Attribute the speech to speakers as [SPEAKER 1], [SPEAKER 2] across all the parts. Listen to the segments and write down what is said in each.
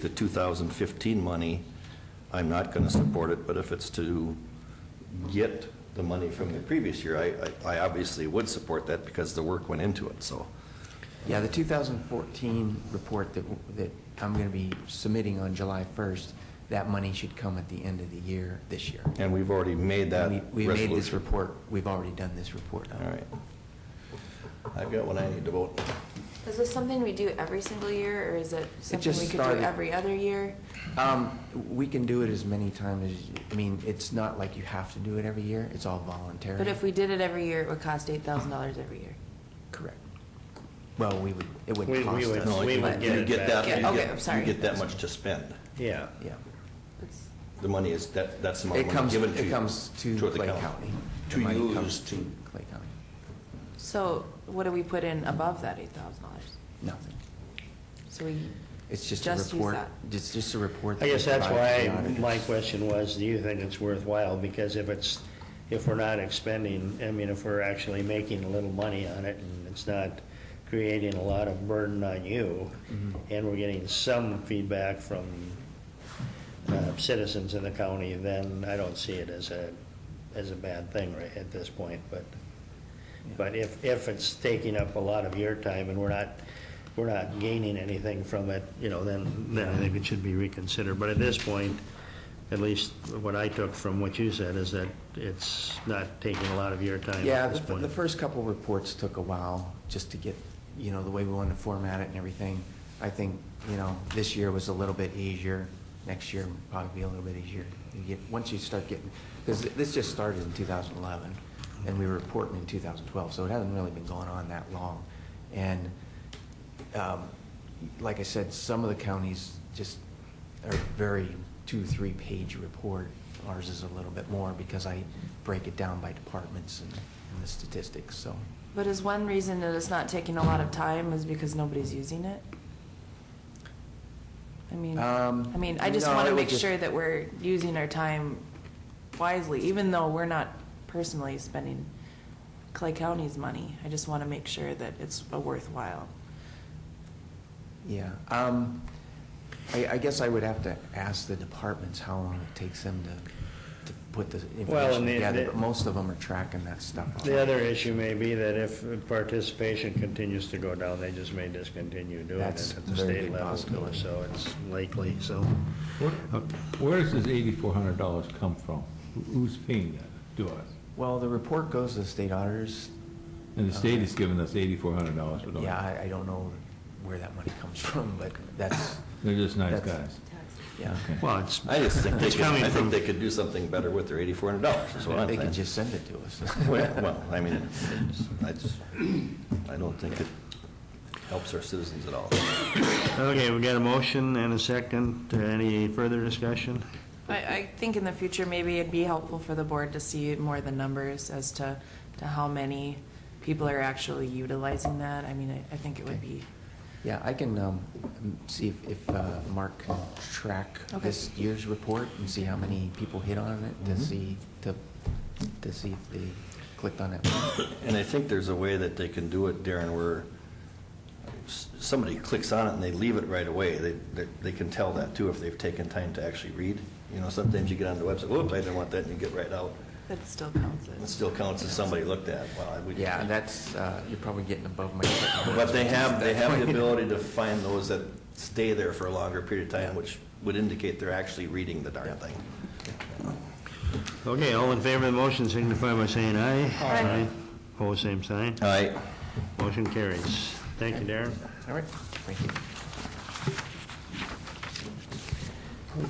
[SPEAKER 1] the 2015 money, I'm not going to support it, but if it's to get the money from the previous year, I- I I obviously would support that because the work went into it, so.
[SPEAKER 2] Yeah, the 2014 report that, that I'm going to be submitting on July 1st, that money should come at the end of the year, this year.
[SPEAKER 1] And we've already made that
[SPEAKER 2] And we-
[SPEAKER 1] resolution.
[SPEAKER 2] We made this report, we've already done this report.
[SPEAKER 1] All right. I've got one I need to vote.
[SPEAKER 3] Is this something we do every single year, or is it something
[SPEAKER 2] just
[SPEAKER 3] we could do
[SPEAKER 2] started.
[SPEAKER 3] every other year?
[SPEAKER 2] Um, We can do it as many times, as you- I mean, it's not like you have to do it every year, it's all voluntary.
[SPEAKER 3] But if we did it every year, it would cost eight thousand dollars every year.
[SPEAKER 2] Correct. Well, we would, it would
[SPEAKER 4] We- we
[SPEAKER 2] cost us.
[SPEAKER 4] would-
[SPEAKER 1] No,
[SPEAKER 4] we
[SPEAKER 1] you-
[SPEAKER 4] would
[SPEAKER 1] you
[SPEAKER 4] get it back.
[SPEAKER 1] that- you
[SPEAKER 3] Yeah, okay,
[SPEAKER 1] get-
[SPEAKER 3] I'm sorry.
[SPEAKER 1] You get that much to spend.
[SPEAKER 4] Yeah.
[SPEAKER 2] Yeah.
[SPEAKER 3] It's-
[SPEAKER 1] The money is, that that's the amount of
[SPEAKER 2] It
[SPEAKER 1] money
[SPEAKER 2] comes,
[SPEAKER 1] given to
[SPEAKER 2] it
[SPEAKER 1] you,
[SPEAKER 2] comes to
[SPEAKER 1] toward the
[SPEAKER 2] Clay County. The
[SPEAKER 1] To
[SPEAKER 2] money
[SPEAKER 1] use
[SPEAKER 2] comes
[SPEAKER 1] to-
[SPEAKER 2] Clay County,
[SPEAKER 3] So what do we put in above that eight thousand dollars?
[SPEAKER 2] nothing.
[SPEAKER 3] So we.
[SPEAKER 2] It's just a
[SPEAKER 3] Just use
[SPEAKER 2] report,
[SPEAKER 3] that.
[SPEAKER 2] it's just a report.
[SPEAKER 4] I
[SPEAKER 2] that
[SPEAKER 4] guess
[SPEAKER 2] we
[SPEAKER 4] that's
[SPEAKER 2] provide to
[SPEAKER 4] why
[SPEAKER 2] the
[SPEAKER 4] my
[SPEAKER 2] auditors.
[SPEAKER 4] question was, do you think it's worthwhile? Because if it's, if we're not expending, I mean, if we're actually making a little money on it and it's not creating a lot of burden on you, and we're getting some feedback from uh, citizens in the county, then I don't see it as a, as a bad thing right at this point, but, but if, if it's taking up a lot of your time and we're not, we're not gaining anything from it, you know, then, then I think it should be reconsidered. But at this point, at least what I took from what you said is that it's not taking a lot of your time
[SPEAKER 2] Yeah,
[SPEAKER 4] at this
[SPEAKER 2] the,
[SPEAKER 4] point.
[SPEAKER 2] the first couple reports took a while just to get, you know, the way we wanted to format it and everything. I think, you know, this year was a little bit easier. Next year will probably be a little bit easier. You get, once you start getting, because this just started in 2011 and we were reporting in 2012, so it hasn't really been going on that long. And, um, like I said, some of the counties just are very two, three-page report. Ours is a little bit more because I break it down by departments and, and the statistics, so.
[SPEAKER 3] But is one reason that it's not taking a lot of time is because nobody's using it? I mean,
[SPEAKER 2] Um,
[SPEAKER 3] I mean, I just
[SPEAKER 2] no,
[SPEAKER 3] want
[SPEAKER 2] it
[SPEAKER 3] to
[SPEAKER 2] would
[SPEAKER 3] make
[SPEAKER 2] just-
[SPEAKER 3] sure that we're using our time wisely, even though we're not personally spending Clay County's money. I just want to make sure that it's a worthwhile.
[SPEAKER 2] Yeah, um, I, I guess I would have to ask the departments how long it takes them to, to put the
[SPEAKER 4] Well,
[SPEAKER 2] information
[SPEAKER 4] and the-
[SPEAKER 2] together,
[SPEAKER 4] the-
[SPEAKER 2] but most of them are tracking that stuff.
[SPEAKER 4] The other issue may be that if participation continues to go down, they just may discontinue doing it at
[SPEAKER 2] That's
[SPEAKER 4] the
[SPEAKER 2] a very
[SPEAKER 4] state
[SPEAKER 2] good
[SPEAKER 4] level too,
[SPEAKER 2] possibility.
[SPEAKER 4] so it's likely, so.
[SPEAKER 5] Where- Where does this eighty-four hundred dollars come from? Who- Who's paying that to us?
[SPEAKER 2] Well, the report goes to the state auditors.
[SPEAKER 5] And the state is giving us eighty-four hundred dollars for doing
[SPEAKER 2] Uh, Yeah,
[SPEAKER 5] it.
[SPEAKER 2] I, I don't know where that money comes from, but that's,
[SPEAKER 5] They're just nice
[SPEAKER 2] That's-
[SPEAKER 5] guys.
[SPEAKER 2] yeah.
[SPEAKER 5] Okay.
[SPEAKER 4] Well, it's,
[SPEAKER 1] I just think they
[SPEAKER 4] it's
[SPEAKER 1] could,
[SPEAKER 4] coming
[SPEAKER 1] I think
[SPEAKER 4] from,
[SPEAKER 1] they could do something better with their eighty-four hundred dollars, is what I'm
[SPEAKER 2] They
[SPEAKER 1] saying.
[SPEAKER 2] could just send it to us.
[SPEAKER 1] Well, well, I mean, it's- I just, I don't think it helps our citizens at all.
[SPEAKER 4] okay, we got a motion and a second. Any further discussion?
[SPEAKER 3] I, I think in the future, maybe it'd be helpful for the board to see more the numbers as to, to how many people are actually utilizing that. I mean, I, I think it would be,
[SPEAKER 2] Yeah, I can um, see if- if uh, Mark can track
[SPEAKER 3] Okay.
[SPEAKER 2] this year's report and see how many people hit on it
[SPEAKER 1] Mm-hmm.
[SPEAKER 2] to see, to, to see if they clicked on it.
[SPEAKER 1] And I think there's a way that they can do it, Darren, where s- somebody clicks on it and they leave it right away. They, they- they can tell that too if they've taken time to actually read. You know, sometimes you get on the website, whoop, I didn't want that, and you get right out.
[SPEAKER 3] that still counts
[SPEAKER 1] It
[SPEAKER 3] as.
[SPEAKER 1] still counts as somebody looked at. Well, I would-
[SPEAKER 2] Yeah, that's, uh, you're probably getting above my.
[SPEAKER 1] But they have, they have the ability to find those that stay there for a longer period of time, which would indicate they're actually reading the darn thing.
[SPEAKER 4] Okay, all in favor of the motion signify by saying aye.
[SPEAKER 3] Aye.
[SPEAKER 4] Pose same sign.
[SPEAKER 1] All right.
[SPEAKER 4] Motion carries. Thank you, Darren.
[SPEAKER 2] All right, thank you.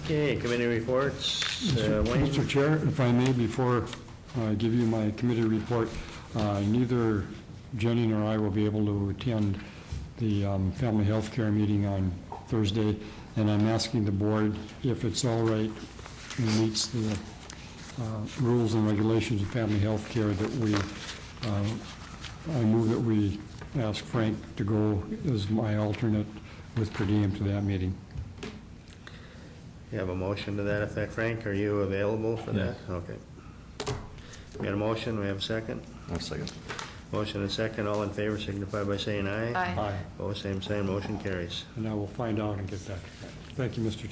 [SPEAKER 4] Okay, committee reports. Uh, Wayne?
[SPEAKER 6] Mr. Chair, if I may, before I give you my committee report, uh, neither Jenny nor I will be able to attend the um, family health care meeting on Thursday, and I'm asking the board if it's all right and meets the uh, rules and regulations of family health care that we, uh, I move that we ask Frank to go as my alternate with per diem to that meeting.
[SPEAKER 4] You have a motion to that effect, Frank? Are you available for that? Okay. We got a motion, we have a second?
[SPEAKER 1] One second.
[SPEAKER 4] Motion and second, all in favor signify by saying aye.
[SPEAKER 3] Aye.
[SPEAKER 4] Pose same sign, motion carries.
[SPEAKER 6] And I will find out and get back to you. Thank you, Mr.